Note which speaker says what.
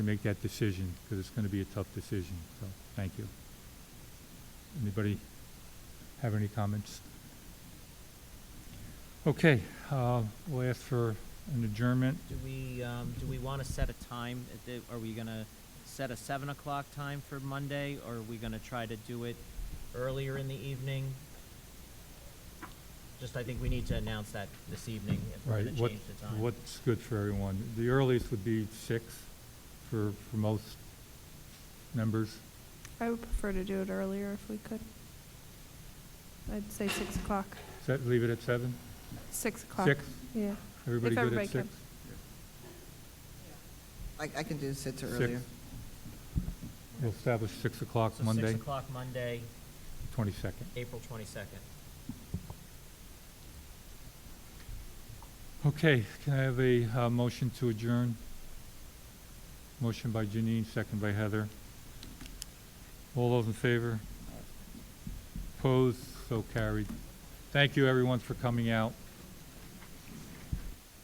Speaker 1: to make that decision, because it's going to be a tough decision, so, thank you. Anybody have any comments? Okay, uh, we'll ask for an adjournment.
Speaker 2: Do we, um, do we want to set a time? at the- Are we gonna set a seven o'clock time for Monday, or are we gonna try to do it earlier in the evening? Just, I think we need to announce that this evening if we're
Speaker 1: Right,
Speaker 2: gonna
Speaker 1: what,
Speaker 2: change the time.
Speaker 1: what's good for everyone? The earliest would be six for, for most members.
Speaker 3: I would prefer to do it earlier if we could. I'd say six o'clock.
Speaker 1: Set, leave it at seven?
Speaker 3: Six o'clock.
Speaker 1: Six?
Speaker 3: Yeah.
Speaker 1: Everybody good
Speaker 3: everybody
Speaker 1: at six?
Speaker 3: can.
Speaker 4: I, I can do sits
Speaker 1: Six.
Speaker 4: earlier.
Speaker 1: We'll establish six o'clock
Speaker 2: So
Speaker 1: Monday,
Speaker 2: Six o'clock Monday,
Speaker 1: twenty-second.
Speaker 2: April twenty-second.
Speaker 1: Okay, can I have a, uh, motion to adjourn? Motion by Janine, second by Heather. All those in favor? Opposed, so carried. Thank you, everyone, for coming out.